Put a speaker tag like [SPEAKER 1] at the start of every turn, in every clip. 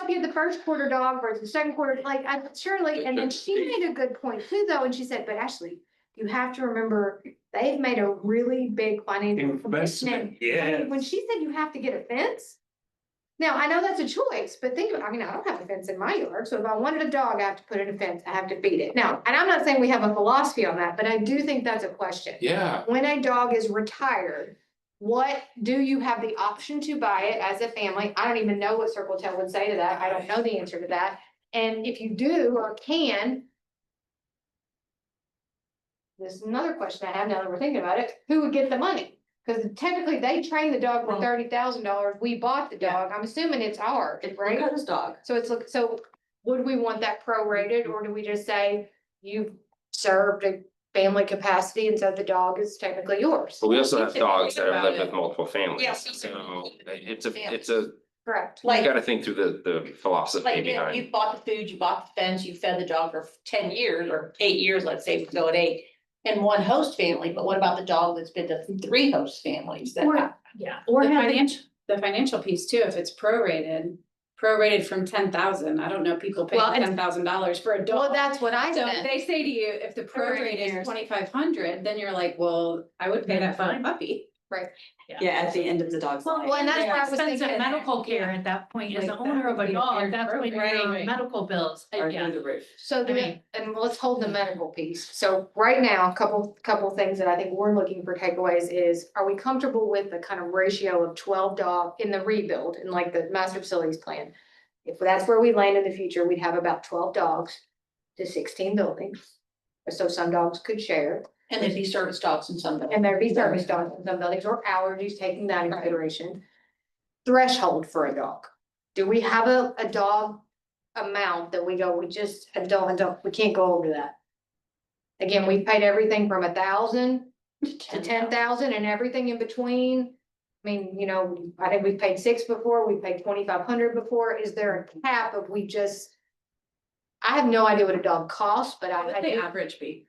[SPEAKER 1] Up here, the first quarter dog versus the second quarter, like, I surely, and then she made a good point too, though, and she said, but Ashley, you have to remember, they've made a really big financial commitment.
[SPEAKER 2] Investment,
[SPEAKER 1] I mean,
[SPEAKER 2] yes.
[SPEAKER 1] When she said you have to get a fence. Now, I know that's a choice, but think, about- I mean, I don't have a fence in my yard, so if I wanted a dog, I have to put in a fence, I have to feed it. Now, and I'm not saying we have a philosophy on that, but I do think that's a question
[SPEAKER 2] Yeah,
[SPEAKER 1] when a dog is retired, what do you have the option to buy it as a family? I don't even know what Circle Tail would say to that. I don't know the answer to that. And if you do or can. This is another question I have now that we're thinking about it. Who would get the money? Cause technically they trained the dog for
[SPEAKER 3] Well-
[SPEAKER 1] thirty thousand dollars. We bought the
[SPEAKER 3] Yeah.
[SPEAKER 1] dog. I'm assuming it's ours,
[SPEAKER 3] If we
[SPEAKER 1] right?
[SPEAKER 3] got his dog,
[SPEAKER 1] So it's like, so would we want that prorated or do we just say you've served a family capacity and so the dog is technically yours?
[SPEAKER 4] But we also have
[SPEAKER 3] If you
[SPEAKER 4] dogs that
[SPEAKER 3] think
[SPEAKER 4] have lived
[SPEAKER 3] about it-
[SPEAKER 4] with multiple families,
[SPEAKER 3] Yes.
[SPEAKER 4] so it's a,
[SPEAKER 3] Families.
[SPEAKER 4] it's a,
[SPEAKER 1] Correct.
[SPEAKER 4] you
[SPEAKER 3] like,
[SPEAKER 4] gotta think through the, the philosophy
[SPEAKER 3] like if
[SPEAKER 4] behind.
[SPEAKER 3] you bought the food, you bought the fence, you fed the dog for ten years or eight years, let's say, if we go at eight. And one host family, but what about the dog that's been to three host families that?
[SPEAKER 5] Or- Yeah, or
[SPEAKER 3] The
[SPEAKER 5] the
[SPEAKER 3] finan-
[SPEAKER 5] financial, the financial piece too, if it's prorated, prorated from ten thousand, I don't know, people pay
[SPEAKER 1] Well, and-
[SPEAKER 5] ten thousand dollars for a
[SPEAKER 1] Well,
[SPEAKER 5] dog.
[SPEAKER 1] that's what I
[SPEAKER 5] So
[SPEAKER 1] said.
[SPEAKER 5] they say to you, if the
[SPEAKER 1] Prorated
[SPEAKER 5] prorate is
[SPEAKER 1] years.
[SPEAKER 5] twenty-five hundred, then you're like, well, I would pay that for a puppy.
[SPEAKER 3] Yeah, at the end of the dog's
[SPEAKER 1] Well, and that's what I was thinking.
[SPEAKER 6] Expensive medical care at that point, as
[SPEAKER 5] Like
[SPEAKER 6] the
[SPEAKER 5] that
[SPEAKER 6] owner of
[SPEAKER 5] would
[SPEAKER 6] a
[SPEAKER 5] be a fair
[SPEAKER 6] dog, that's when your
[SPEAKER 3] program.
[SPEAKER 6] medical bills, uh, yeah.
[SPEAKER 3] the roof.
[SPEAKER 1] So
[SPEAKER 6] I
[SPEAKER 1] the,
[SPEAKER 6] mean-
[SPEAKER 1] and let's hold the medical piece. So right now, a couple, couple things that I think we're looking for takeaways is, are we comfortable with the kind of ratio of twelve dog in the rebuild and like the master facilities plan? If that's where we land in the future, we'd have about twelve dogs to sixteen buildings. So some dogs could share
[SPEAKER 3] And there'd be service dogs and some.
[SPEAKER 1] and there'd be service dogs in some buildings or allergies, taking that into consideration. Threshold for a dog. Do we have a, a dog amount that we go, we just, a dog, a dog, we can't go over that? Again, we paid everything from a thousand to ten thousand and everything in between. I mean, you know, I think we've paid six before, we paid twenty-five hundred before. Is there a cap of we just? I have no idea what a dog costs, but I, I
[SPEAKER 5] The
[SPEAKER 1] do
[SPEAKER 5] average be.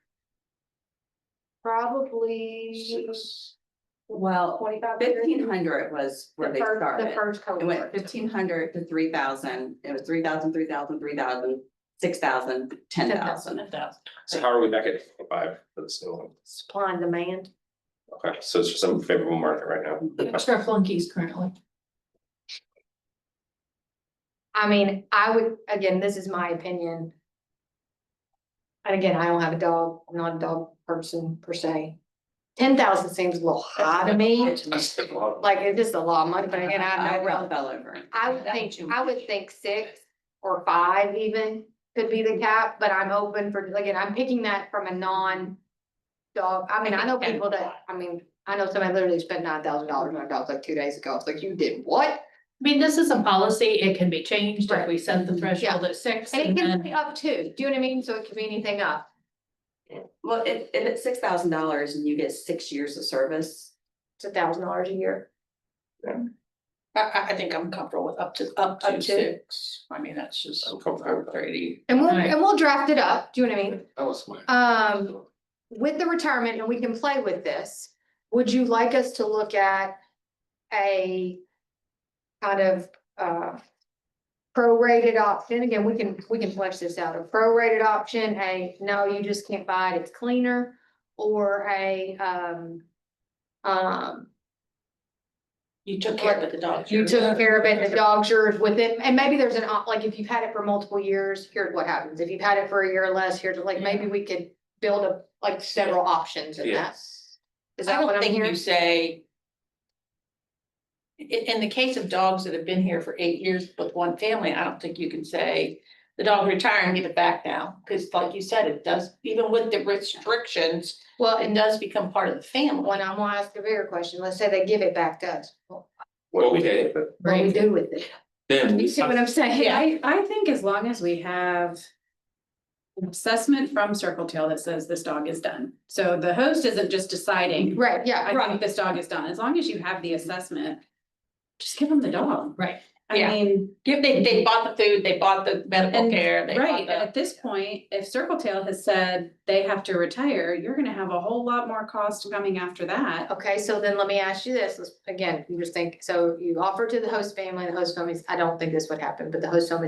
[SPEAKER 1] probably
[SPEAKER 7] Well,
[SPEAKER 1] twenty-five hundred.
[SPEAKER 7] fifteen hundred was where
[SPEAKER 1] The
[SPEAKER 7] they
[SPEAKER 1] first, the
[SPEAKER 7] started.
[SPEAKER 1] first
[SPEAKER 7] It went
[SPEAKER 1] cohort.
[SPEAKER 7] fifteen hundred to three thousand, it was three thousand, three thousand, three thousand, six thousand, ten thousand.
[SPEAKER 4] So how are we back at five for this new one?
[SPEAKER 1] Supply and demand.
[SPEAKER 4] Okay, so it's just a favorable market right now.
[SPEAKER 6] Extra flunkies currently.
[SPEAKER 1] I mean, I would, again, this is my opinion. And again, I don't have a dog, I'm not a dog person per se. Ten thousand seems a little high to me,
[SPEAKER 4] That's a lot.
[SPEAKER 1] like it's just a lot of money, but again, I
[SPEAKER 7] I
[SPEAKER 1] know.
[SPEAKER 7] well fell over.
[SPEAKER 1] I would
[SPEAKER 3] That
[SPEAKER 1] think,
[SPEAKER 3] too
[SPEAKER 1] I would think six or five even could be the cap, but I'm open for, again, I'm picking that from a non. Dog, I mean, I know people that, I mean, I know somebody literally spent nine thousand dollars on a dog like two days ago, it's like, you did what?
[SPEAKER 6] I mean, this is a policy, it can be changed if we set the threshold at six
[SPEAKER 1] And it
[SPEAKER 6] and
[SPEAKER 1] can
[SPEAKER 6] then.
[SPEAKER 1] be up too, do you know what I mean? So it could be anything up.
[SPEAKER 7] Well, if, if it's six thousand dollars and you get six years of service,
[SPEAKER 1] It's a thousand dollars a year.
[SPEAKER 3] I, I, I think I'm comfortable with up to, up
[SPEAKER 1] Up
[SPEAKER 3] to
[SPEAKER 1] to?
[SPEAKER 3] six. I mean, that's just
[SPEAKER 4] I'm comfortable with that.
[SPEAKER 3] thirty.
[SPEAKER 1] And we'll,
[SPEAKER 6] Right.
[SPEAKER 1] and we'll draft it up, do you know what I mean?
[SPEAKER 2] that was my.
[SPEAKER 1] Um, with the retirement, and we can play with this, would you like us to look at a kind of, uh, prorated option? Again, we can, we can flesh this out. A prorated option, a, no, you just can't buy it, it's cleaner, or a, um, um,
[SPEAKER 3] You took care of the dog.
[SPEAKER 1] you took care of it, the dog's yours with it, and maybe there's an, op- like, if you've had it for multiple years, here's what happens. If you've had it for a year or less, here's, like, maybe we could build up, like, several options in that. Is
[SPEAKER 3] I
[SPEAKER 1] that what
[SPEAKER 3] don't
[SPEAKER 1] I'm
[SPEAKER 3] think you
[SPEAKER 1] hearing?
[SPEAKER 3] say. In, in the case of dogs that have been here for eight years with one family, I don't think you can say, the dog retire and give it back now. Cause like you said, it does, even with the restrictions,
[SPEAKER 1] Well,
[SPEAKER 3] it
[SPEAKER 1] and
[SPEAKER 3] does become part of the
[SPEAKER 1] when
[SPEAKER 3] family.
[SPEAKER 1] I'm gonna ask a bigger question, let's say they give it back to us. What
[SPEAKER 4] What we did, but
[SPEAKER 1] do we do with it?
[SPEAKER 2] Then.
[SPEAKER 1] You see what I'm saying?
[SPEAKER 3] Yeah.
[SPEAKER 5] I, I think as long as we have an assessment from Circle Tail that says this dog is done. So the host isn't just deciding,
[SPEAKER 1] Right, yeah,
[SPEAKER 5] I think this dog is done, as long as you have the assessment, just give them the dog.
[SPEAKER 6] Right.
[SPEAKER 5] I
[SPEAKER 3] Yeah.
[SPEAKER 5] mean.
[SPEAKER 3] Give, they, they bought the food, they bought the medical
[SPEAKER 5] And-
[SPEAKER 3] care, they bought
[SPEAKER 5] Right,
[SPEAKER 3] the,
[SPEAKER 5] at this point, if Circle Tail has said they have to retire, you're gonna have a whole lot more cost coming after that.
[SPEAKER 1] Okay, so then let me ask you this, let's- again, you just think, so you offer to the host family, the host family, I don't think this would happen, but the host family